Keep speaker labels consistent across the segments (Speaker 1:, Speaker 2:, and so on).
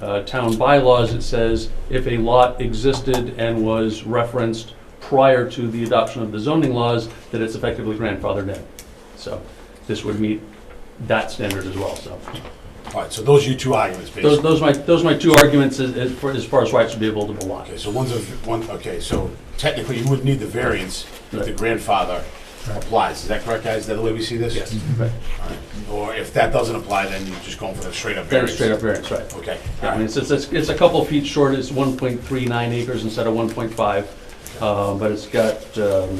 Speaker 1: uh, town bylaws, it says if a lot existed and was referenced prior to the adoption of the zoning laws, that it's effectively grandfathered in. So this would meet that standard as well, so.
Speaker 2: All right, so those are your two arguments,
Speaker 1: Those,
Speaker 2: basically.
Speaker 1: those are my, those are my two arguments as, as far- as far as why it should be a buildable lot.
Speaker 2: Okay, so one's a, one, okay, so technically you would need the variance if the
Speaker 1: Right.
Speaker 2: grandfather applies. Is that correct, guys? Is that the way we see this?
Speaker 1: Yes.
Speaker 2: All right. Or if that doesn't apply, then you're just going for the straight up
Speaker 1: Very
Speaker 2: variance?
Speaker 1: straight up variance, right.
Speaker 2: Okay, all
Speaker 1: Yeah, I mean,
Speaker 2: right,
Speaker 1: it's, it's, it's a couple feet short, it's one point three nine acres instead of one point five, uh, but it's got, um,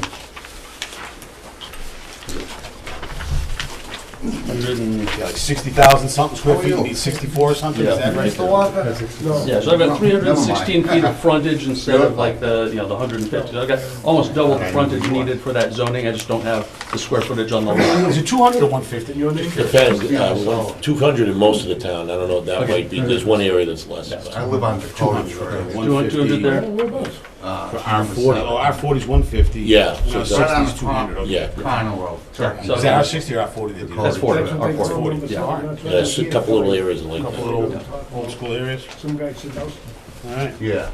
Speaker 1: hundred and,
Speaker 2: yeah, like sixty thousand something square
Speaker 3: How are
Speaker 2: feet, you
Speaker 3: you?
Speaker 2: need sixty-four or something, is
Speaker 1: Yeah.
Speaker 2: that right?
Speaker 3: Mr. Walker? No.
Speaker 1: yeah, so I've got
Speaker 3: No,
Speaker 1: three hundred and
Speaker 3: never
Speaker 1: sixteen
Speaker 3: mind.
Speaker 1: feet of frontage instead of like the, you know, the hundred and fifty. I've got almost double the frontage needed for that zoning, I just don't have the square footage on the lot.
Speaker 2: Is it two hundred or one fifty, you know what I mean?
Speaker 4: Depends, uh, two hundred in most of the town, I don't know, that might be, there's one area that's less.
Speaker 3: I live on Dakota Drive.
Speaker 1: Two hundred, two hundred there?
Speaker 3: uh,
Speaker 2: R forty, oh, R forty's one fifty.
Speaker 4: Yeah, so that's-
Speaker 2: Sixty's two hundred, okay.
Speaker 4: Yeah,
Speaker 3: Connell Road.
Speaker 1: So-
Speaker 2: Is that R sixty or R forty that did it?
Speaker 1: That's forty, or
Speaker 2: It's
Speaker 1: forty.
Speaker 2: forty,
Speaker 1: Yeah.
Speaker 2: all right.
Speaker 4: Yeah, there's a couple little areas like
Speaker 2: Couple
Speaker 4: that.
Speaker 2: little old school areas,
Speaker 5: Some guy said, "No,
Speaker 2: all right.
Speaker 3: Yeah.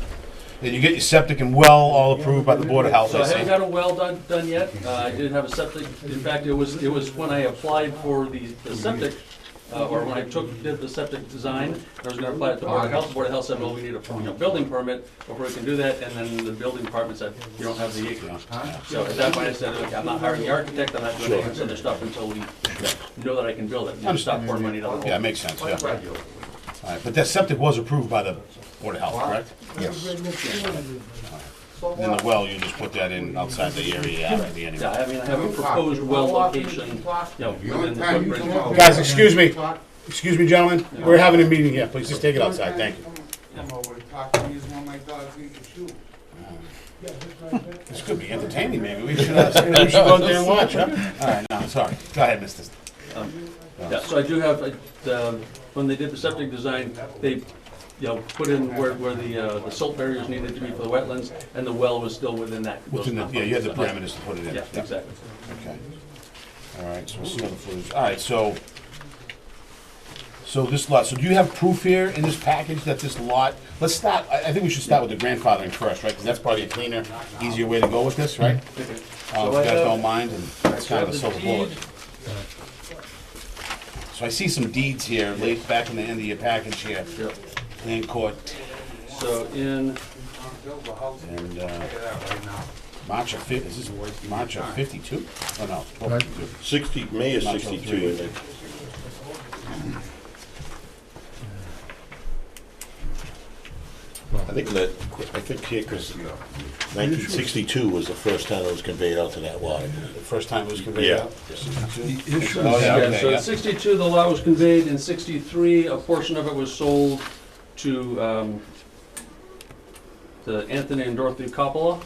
Speaker 2: And you get your septic and well all approved by the Board of Health,
Speaker 1: So I
Speaker 2: I
Speaker 1: haven't
Speaker 2: see.
Speaker 1: got a well done, done yet. Uh, I did have a septic, in fact, it was, it was when I applied for the the septic, uh, or when I took, did the septic design, I was gonna apply it to Board of Health, Board of Health said, well, we need a, you know, building permit before we can do that, and then the building department said, you don't have the acreage. So at that point, I said, okay, I'm not hiring the architect, I'm not doing any of this other stuff until we know that I can build it, and stop pouring money down the
Speaker 2: Yeah,
Speaker 1: hole.
Speaker 2: that makes sense, yeah. All
Speaker 1: Right.
Speaker 2: right, but that septic was approved by the Board of Health, correct?
Speaker 3: Yes.
Speaker 2: And then the well, you just put that in outside the area after the
Speaker 1: Yeah,
Speaker 2: anyway.
Speaker 1: I mean, I have a proposed well location, you know,
Speaker 3: The only
Speaker 1: within the
Speaker 3: time you come
Speaker 1: footprint.
Speaker 3: out-
Speaker 2: Guys, excuse me, excuse me, gentlemen, we're having a meeting here, please just take it outside, thank you.
Speaker 3: Come over to talk to me is when my dog's eating shoe.
Speaker 2: This could be entertaining, maybe, we should, uh, we should go out there and watch, huh? All right, no, sorry, go ahead, Mr.
Speaker 1: Yeah, so I do have, uh, um, when they did the septic design, they, you know, put in where, where the, uh, the silt barriers needed to be for the wetlands, and the well was still within that. those
Speaker 2: Within the, yeah, you had the
Speaker 1: confines.
Speaker 2: parameters to put it in.
Speaker 1: Yeah, exactly.
Speaker 2: Okay. All right, so we'll see what the footage, all right, so, so this lot, so do you have proof here in this package that this lot, let's start, I, I think we should start with the grandfathering first, right? Because that's probably a cleaner, easier way to go with this, right? Uh, if you
Speaker 1: I
Speaker 2: guys
Speaker 1: have-
Speaker 2: don't mind, and it's kind of a
Speaker 1: So the
Speaker 2: silver bullet.
Speaker 1: deed-
Speaker 2: So I see some deeds here, late back in the end of your package here,
Speaker 1: Yep.
Speaker 2: land court
Speaker 1: So in,
Speaker 3: I'll build a house and
Speaker 2: and, uh,
Speaker 3: get out right now.
Speaker 2: March of fif, is this March of fifty-two? Oh, no, twelve fifty-two.
Speaker 4: Sixty, May is
Speaker 2: Not till three.
Speaker 4: sixty-two, I think. I think that, I think here, because nineteen sixty-two was the first time it was conveyed out to that lot.
Speaker 2: The first time it was conveyed
Speaker 4: Yeah.
Speaker 2: out? Sixty-two? Oh, yeah,
Speaker 1: yeah,
Speaker 2: okay,
Speaker 1: so
Speaker 2: yeah.
Speaker 1: in sixty-two, the lot was conveyed, in sixty-three, a portion of it was sold to, um, to Anthony and Dorothy Coppola.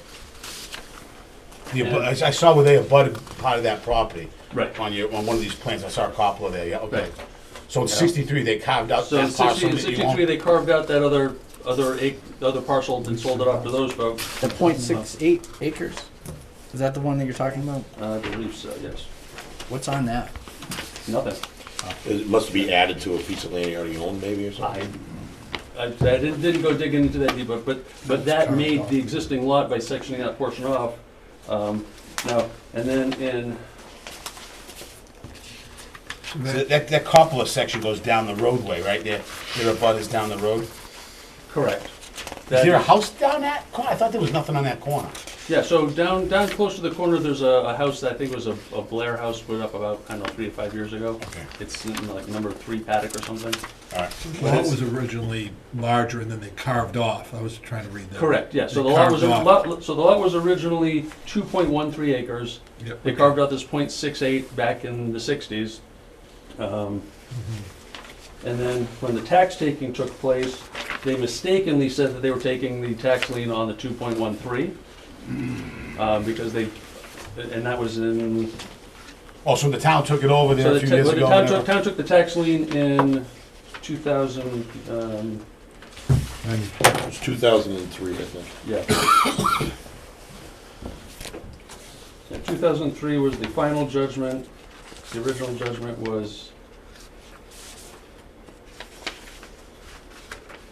Speaker 2: The abu- I I saw where they abutted part of that property.
Speaker 1: Right.
Speaker 2: On your, on one of these plans, I saw a coppola there, yeah, okay.
Speaker 1: Right.
Speaker 2: So in sixty-three, they carved out
Speaker 1: So in
Speaker 2: that parcel
Speaker 1: 60
Speaker 2: that you
Speaker 1: 63,
Speaker 2: own?
Speaker 1: they carved out that other, other ac the other parcel and sold it off to those folks.
Speaker 6: The point six eight acres. Is that the one that you're talking about?
Speaker 1: I believe so, yes.
Speaker 6: What's on that?
Speaker 1: Nothing.
Speaker 4: It must be added to a piece of land you already owned, maybe, or
Speaker 1: I,
Speaker 4: something?
Speaker 1: I I didn't, didn't go digging into that deep, but- but, but that made the existing lot by sectioning that portion off. Um, Now, and then in,
Speaker 2: So That, that coppola section goes down the roadway, right there, there are butters down the road.
Speaker 1: correct.
Speaker 2: Is
Speaker 1: That-
Speaker 2: there a house down that corner? I thought there was nothing on that corner.
Speaker 1: Yeah, so down, down close to the corner, there's a, a house that I think was a a Blair house put up about, I don't know, three to five years ago.
Speaker 2: Okay.
Speaker 1: It's in, like number three paddock or something.
Speaker 2: All right.
Speaker 7: lot was originally larger and then they carved off. I was trying to read that.
Speaker 1: Correct, yeah, so
Speaker 7: They
Speaker 1: the lot was,
Speaker 7: carved off.
Speaker 1: lot- so the lot was originally two point one three acres.
Speaker 7: Yep.
Speaker 1: They carved out this .68 back in the sixties. Um, And then when the tax taking took place, they mistakenly said that they were taking the tax lien on the two point one three. Um, Because they, and that was in,
Speaker 2: Oh, so the town took it over there
Speaker 1: so
Speaker 2: a
Speaker 1: the
Speaker 2: few
Speaker 1: ta-
Speaker 2: years
Speaker 1: well, the
Speaker 2: ago?
Speaker 1: town
Speaker 2: whatever.
Speaker 1: took, town took the tax lien in two thousand, um,
Speaker 7: And
Speaker 4: It was two thousand and three, I think.
Speaker 1: Yeah. Yeah, 2003 was the final judgment. The original judgment was